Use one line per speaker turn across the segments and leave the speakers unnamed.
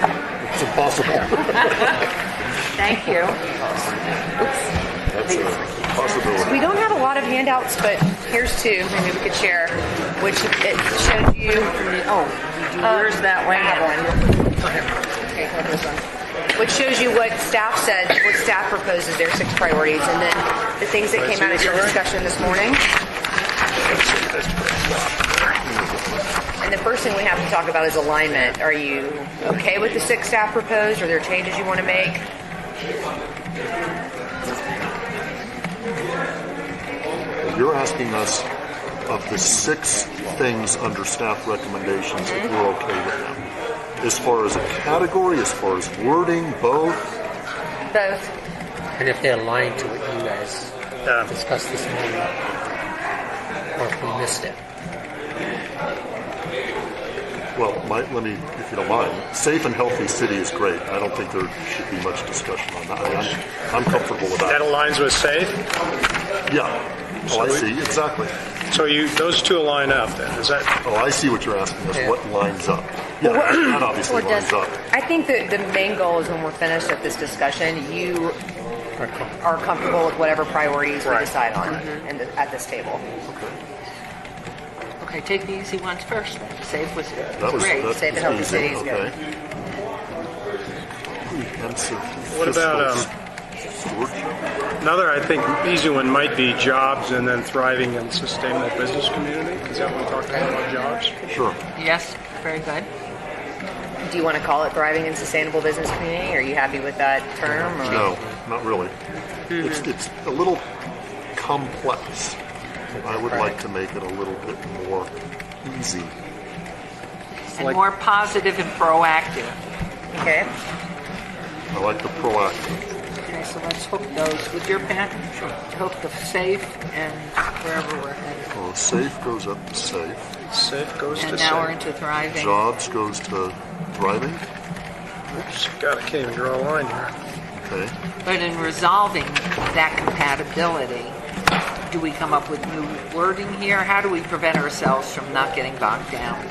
It's impossible.
Thank you.
That's a possibility.
We don't have a lot of handouts, but here's two maybe we could share, which it shows you. Oh, yours that way. I have one. Okay, hold this one. Which shows you what staff said, what staff proposes their six priorities, and then the things that came out of your discussion this morning. And the first thing we have to talk about is alignment. Are you okay with the six staff proposed? Are there changes you want to make?
You're asking us of the six things under staff recommendations if we're okay with them. As far as a category, as far as wording, both,
Both.
And if they align to what you guys discussed this morning, or if we missed it.
well, my, let me, if you don't mind, safe and healthy city is great. I don't think there should be much discussion on that. I'm, I'm comfortable with
That
that.
aligns with safe.
Yeah. Oh, I see, exactly.
So you, those two align up then, is that?
Oh, I see what you're asking us, what lines up. Yeah, that obviously lines up.
I think that the main goal is when we're finished with this discussion, you are comfortable with whatever priorities we
Right.
decide on
Mm-hmm.
and at this table.
Okay, take the easy ones first. then. Save was
That was,
great.
that
Safe and
was
healthy
easy,
city is good.
okay. Comprehensive
What about, um,
fiscal stewardship.
Another, I think, easy one might be jobs and then thriving and sustainable business community. Is that one talking about jobs?
Sure.
Yes, very good.
Do you want to call it thriving and sustainable business community? Are you happy with that term? Or?
No, not really. It's,
Hmm.
it's a little complex. I would like to make it a little bit more easy.
And more positive and proactive.
Okay.
I like the proactive.
Okay, so let's hook those with your pen. Sure. Hook the safe and wherever we're headed.
Well, Oh, safe goes up to safe.
Safe goes to
And now we're
safe.
into thriving.
Jobs goes to thriving.
Oops, God, I can't even draw a line here.
Okay.
But in resolving that compatibility, do we come up with new wording here? How do we prevent ourselves from not getting bogged down?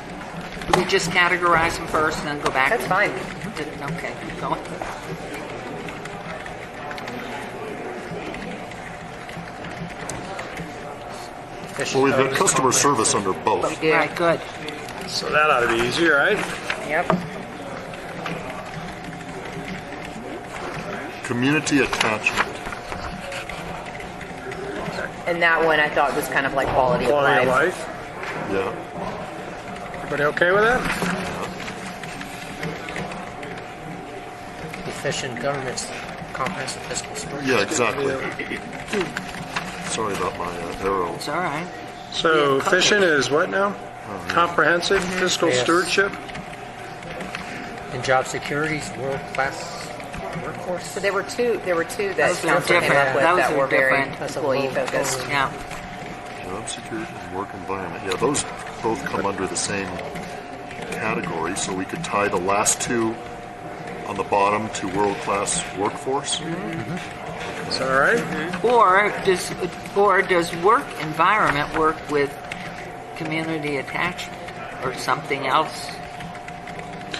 Do we just categorize them first and then go back?
That's fine.
Okay, keep going.
Well, we've got customer service under both.
Yeah.
Right, good.
So that ought to be easy, right?
Yep.
Community attachment.
And that one I thought was kind of like quality,
Quality
of
of
life.
life.
Yeah.
Everybody okay with that?
Efficient government's comprehensive fiscal stewardship.
Yeah, exactly. Sorry about my uh, arrow.
It's all right.
So fishing is what now? Comprehensive fiscal
Yes.
stewardship?
And job security's world-class workforce.
So there were two. There were two that
Those are
council came
different.
up with
Those
that
are
were very
different.
That's a
employee
little-
focused.
Yeah.
Job security and work environment. Yeah, those both come under the same category, so we could tie the last two on the bottom to world-class workforce.
Is that all right?
Or does, or does work environment work with community attachment or something else?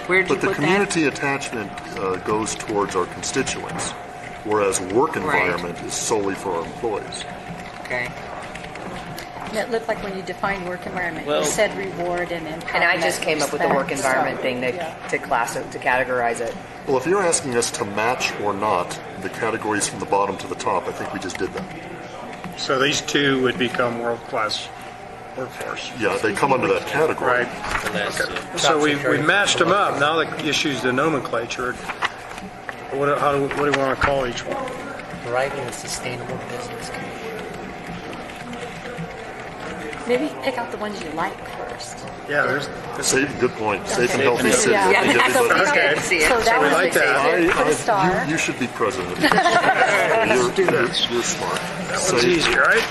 Where'd you
But the
put that?
community attachment uh, goes towards our constituents, whereas work environment is solely for our employees.
Okay.
It looked like when you define work environment,
Well-
you said reward and empowerment.
And I just came up with the work
respect, so,
environment thing to,
yeah.
to class it, to categorize it.
Well, if you're asking us to match or not the categories from the bottom to the top, I think we just did that.
So these two would become world-class workforce.
Yeah, they come under that category.
Right.
The last two.
So we, we matched them up. Now the issue's the nomenclature. What, do- how do, what do we want to call each one?
Thriving and sustainable business community.
Maybe pick out the ones you like first.
Yeah, there's, this
Safe, good point. Safe and
Okay.
healthy city. I
Yeah.
think
So
everybody-
we
Okay.
can see it.
So that
we
was
like
the
that.
safe,
I-
Put
I-
a star.
You, you should be president. you're, you're, you're smart.
one's
Safe.
easy, right?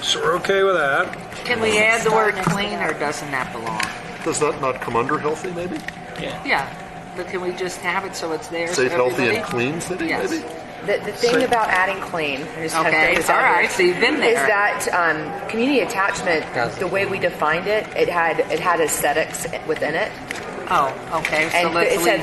So we're okay with that.
Can we add the word
Next to
clean
that.
or doesn't that belong?
Does that not come under healthy, maybe?
Yeah, but can we just have it so it's there? so
Safe, healthy, and
everybody-
clean city,
Yes.
maybe?
The, the thing about adding clean, I just have
Okay,
things
all
out here,
right, so you've been
is
there.
that um, community attachment?
Does it.
The way we defined it, it had it had aesthetics within it,
Oh, okay, so
and
let's
it
leave
said